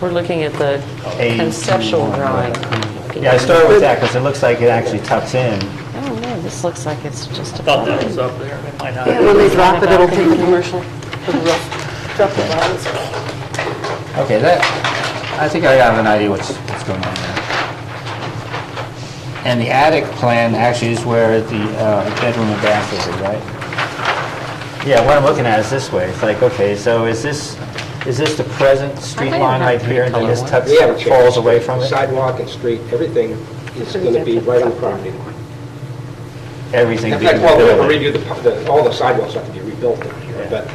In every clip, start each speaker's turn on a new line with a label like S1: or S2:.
S1: We're looking at the
S2: A-
S1: conceptual drawing.
S2: Yeah, I started with that because it looks like it actually tucks in.
S1: I don't know, Oh, this looks like it's just a...
S3: Thought that was up there, it might not.
S4: When they drop it, it'll take the commercial, for the roof. Drop the bottles.
S2: Okay, that, I think I have an idea what's, what's going on there. And the attic plan actually is where the uh, bedroom and bath is, right? Yeah, what I'm looking at is this way. It's like, okay, so is this, is this the present street
S1: I
S2: line
S1: have
S2: right here, and then this tucks,
S5: We haven't changed.
S2: falls away from it?
S5: Sidewalk and street, everything is going to be right on the property line.
S2: Everything
S5: In
S2: being
S5: fact, well, we're
S2: built.
S5: redo the, pu- the- all the sidewalks have to be rebuilt down
S2: Yeah.
S5: here, but,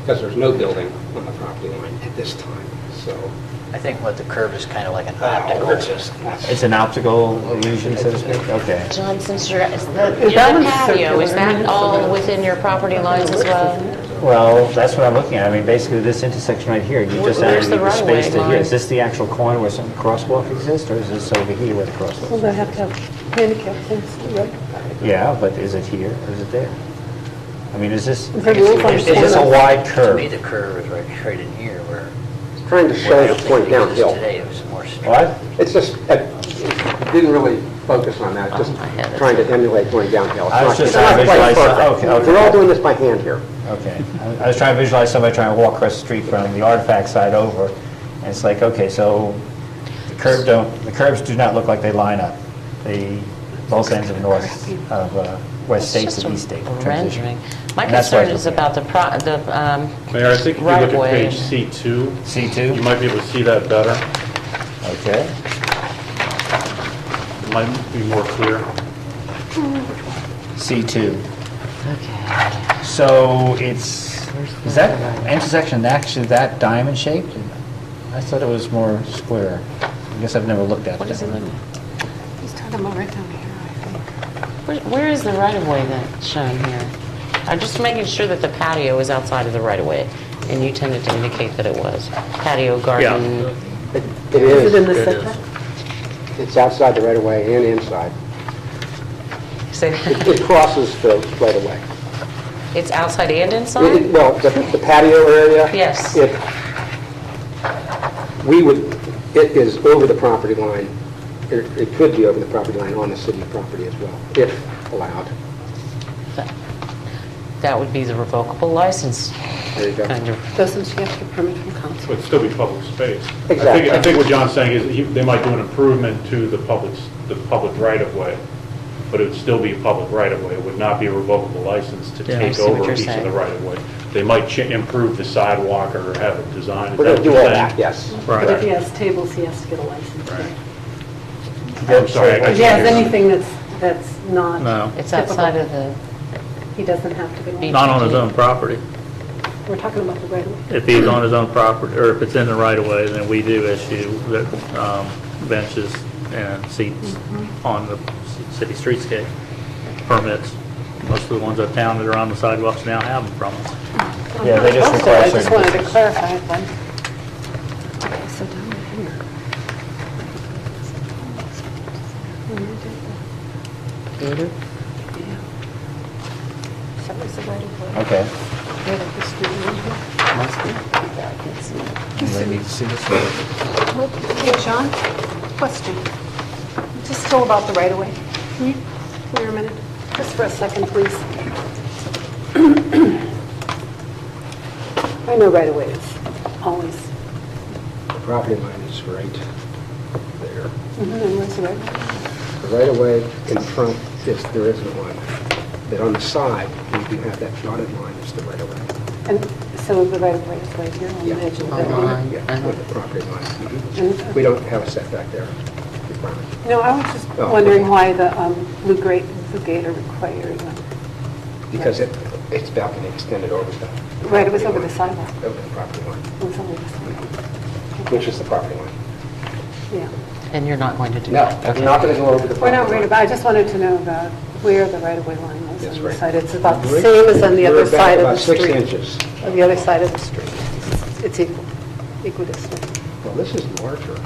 S5: because there's no building on the property line at this time, so.
S6: I think what the curve is kind of like an
S2: Ah,
S5: uh, it's
S6: optical.
S5: just-
S2: It's an optical illusion, so to speak? Okay.
S7: John, since you're, is the
S4: Is
S7: your
S4: that one
S7: patio, is
S4: circular?
S7: that all within your property lines as well?
S2: Well, that's what I'm looking at. I mean, basically, this intersection right here, you just
S1: Where's
S2: added
S1: the
S2: the
S1: right-of-way
S2: space to here.
S1: line?
S2: Is this the actual corner where some crosswalk exists, or is this over here where the crosswalk?
S4: Well,
S2: is?
S4: they have to have handicap things, right?
S1: Hmm.
S2: Yeah, but is it here, or is it there? I mean, is this,
S4: The rules on
S2: is this a
S4: corners.
S2: wide
S6: To me,
S2: curve?
S6: the curve is right, right in here where.
S5: Trying to
S6: where
S5: show the
S6: I don't think
S5: point
S6: it exists
S5: downhill.
S6: Today, it was more. straight.
S2: What?
S5: It's just, I didn't really focus on that,
S2: Oh,
S5: just trying to emulate going downhill. It's
S2: I was just
S5: not- it's not
S2: trying to
S5: quite
S2: visualize some-
S5: perfect.
S2: okay, okay.
S5: We're all doing this by hand here.
S2: Okay. I I was trying to visualize somebody trying to walk across the street from the artifact side over, and it's like, okay, so the curb don't, the curves do not look like they line up. The both ends of north, of uh, west
S1: It's
S2: state
S1: just
S2: to
S1: a
S2: east state transition.
S1: Rendering. My
S2: And that's why I
S1: concern is
S2: look
S1: about the pro, the um,
S8: Mayor, I think if you look at
S1: right-of-way.
S8: page C2, you
S2: C2?
S8: might be able to see that better.
S2: Okay.
S8: It might be more clear.
S2: C2.
S1: Okay.
S2: So it's, is that intersection actually that diamond shaped? I thought it was more square. I guess I've never looked at it.
S1: What is it looking?
S4: He's talking about right down here, I think.
S1: Where- Where is the right-of-way that's shown here? I'm just making sure that the patio is outside of the right-of-way, and you tended to indicate that it was. Patio, garden,
S5: It it
S4: Is it in
S5: is,
S4: the setback?
S5: it's outside the right-of-way and inside.
S1: so
S5: It it crosses the right-of-way.
S1: it's outside and
S5: It- it-
S1: inside?
S5: Well, the the patio area?
S1: Yes.
S5: It, we would, it is over the property line, it it could be over the property line on the city property as well, if allowed.
S1: That would be the revocable license
S5: There you go.
S1: kind of
S4: Doesn't she have to get permit from council?
S8: It would still be public space. I
S5: Exactly.
S8: think, I think what John's saying is he- they might do an improvement to the public, the public right-of-way, but it would still be a public right-of-way. It would not be a revocable license to
S1: I
S8: take
S1: see what
S8: over
S1: you're
S8: a piece of the
S1: saying.
S8: right-of-way. They might cha- improve the sidewalk or have it designed. Is
S5: We're going to
S8: that what
S5: do
S8: you're
S5: all
S8: saying?
S5: that, yes.
S4: But if he
S8: Right.
S4: has tables, he has to get a license.
S8: Right. I'm sorry. I
S4: If
S8: couldn't
S4: he has
S8: hear you.
S4: anything that's, that's not...
S3: No.
S1: It's outside of the,
S4: He doesn't have to get one.
S3: Not on his own property.
S4: We're talking about the right of way.
S3: If he's on his own property, or if it's in the right-of-way, then we do issue the, um, benches and seats on the c- city streetscape permits. Most of the ones uptown that are on the sidewalks now have them from us.
S2: Yeah, they just
S4: Also,
S2: require
S4: I just
S2: certain
S4: wanted to
S2: distance.
S4: clarify it then. Okay, so down here. Somebody's right of way.
S2: Okay.
S4: Right up the street, right
S9: Hey, John, question. Just still about the right-of-way. Can you clear a minute, just for a second, please?
S4: here. I know right of way is always,
S5: The property line is right there.
S4: Mhm, and where's the right of way?
S5: The right-of-way in front, is there isn't one, but on the side, we do have that dotted line is the right-of-way.
S4: And so the right of way is right here on the
S5: Yeah. Oh,
S4: edge of the
S1: Hold on.
S4: building.
S5: Yeah, with the property line.
S4: Mhm.
S5: Mhm. We don't have a setback there requirement.
S4: No, I was just
S5: Oh.
S4: wondering why the um, blue grate, blue gate are required. uh,
S5: Because it, its balcony extended over the...
S4: Right, it was over the sidewalk.
S5: Over the property line,
S4: It was only this one.
S5: which is the property line.
S4: Yeah.
S1: and you're not going to do
S5: No,
S1: that?
S5: we're not going to go over the property
S4: We're
S5: line.
S4: not worried about, I just wanted to know about where the right of way line is
S5: That's
S4: on
S5: right.
S4: the side. It's about the same as on the
S5: We're
S4: other
S5: back
S4: side of the
S5: about
S4: street.
S5: six inches.
S4: On the other side of the street. It's equal, equidistant.
S5: Well, this is larger.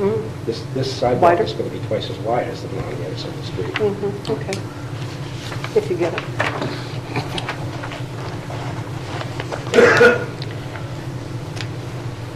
S4: Mhm.
S5: This, this sidewalk
S4: Wider.
S5: is going to be twice as wide as the one on the other side of the street.
S4: Mhm, Okay. If you get it.